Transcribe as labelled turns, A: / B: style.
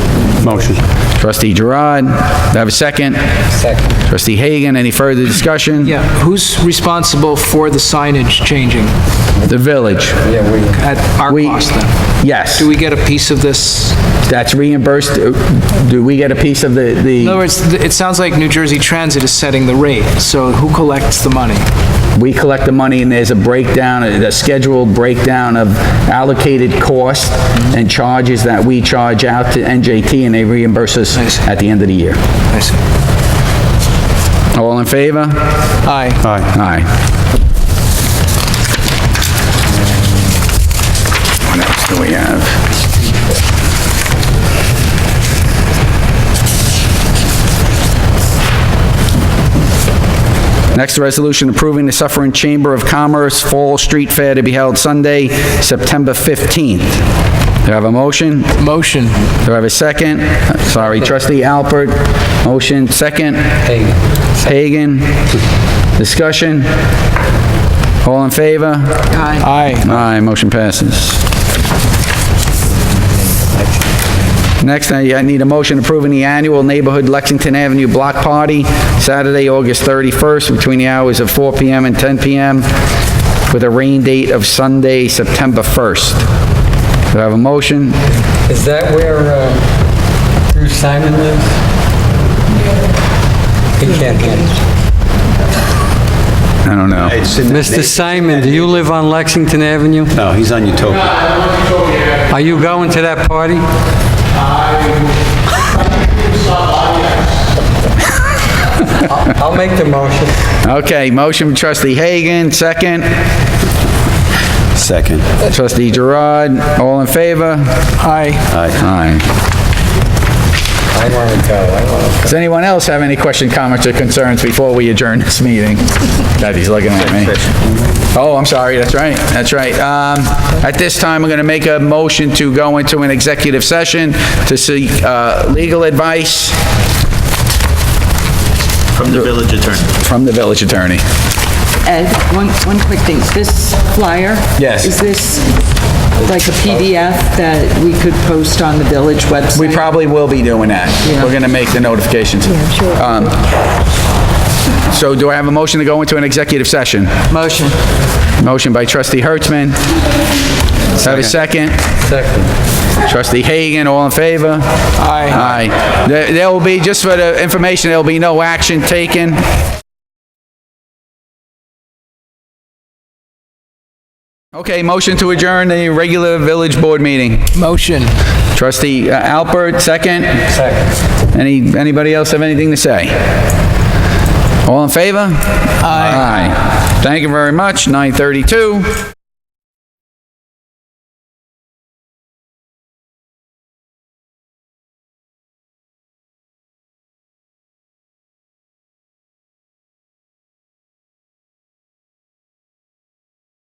A: motion.
B: Trustee Gerard, do I have a second? Second. Trustee Hagan, any further discussion?
C: Yeah, who's responsible for the signage changing
B: The village.
C: at our
B: We-
C: cost then?
B: Yes.
C: Do we get a piece of this?
B: That's reimbursed, do we get a piece of the,
C: In other
B: the,
C: words, th- it sounds like New Jersey Transit is setting the rate, so who collects the money?
B: we collect the money and there's a breakdown, a scheduled breakdown of allocated costs and charges that we charge out to NJT and they reimburse us
C: Nice.
B: at the end of the year.
C: I see.
B: All in favor?
C: Aye.
A: Aye.
B: Aye. What else do we have? Next, a resolution approving the Suffering Chamber of Commerce Fall Street Fair to be held Sunday, September 15th. Do I have a motion?
C: Motion.
B: Do I have a second? Sorry, trustee Alpert, motion, second? Hagan. Hagan, discussion? All in favor?
C: Aye.
B: Aye, motion passes. Next, I I need a motion approving the annual Neighborhood Lexington Avenue Block Party, Saturday, August 31st, between the hours of 4 PM and 10 PM, with a rain date of Sunday, September 1st. Do I have a motion?
D: Is that where uh, Drew Simon lives? He can't hear. us.
B: I don't know.
D: Mr. Simon, do you live on Lexington Avenue?
A: No, he's on Utopia.
D: Are you going to that party? I'll I'll make the motion.
B: Okay, motion from trustee Hagan, second.
A: Second.
B: Trustee Gerard, all in favor?
C: Aye.
A: Aye.
B: Aye.
D: I want to go, I want
B: Does anyone else have any question, comments, or concerns before we adjourn this meeting? God, he's looking at me. Oh, I'm sorry, that's right, that's right. Um, At this time, I'm going to make a motion to go into an executive session to seek uh, legal advice
E: From the village attorney.
B: from the village attorney.
F: Ed, one, one quick thing. This flyer?
B: Yes.
F: Is this like a PDF that we could post on the village website?
B: We probably will be doing that. We're going to make the notifications. Yeah, sure. So do I have a motion to go into an executive session?
C: Motion.
B: Motion by trustee Hertzman. Have a second?
D: to second.
B: Trustee Hagan, all in favor?
C: Aye.
B: Aye. There there will be, just for the information, there'll be no action taken. Okay, motion to adjourn the regular village board meeting.
C: Motion.
B: Trustee uh, Alpert, second? Second. Any, anybody else have anything to say? All in favor? Aye. Thank you very much, 9:32.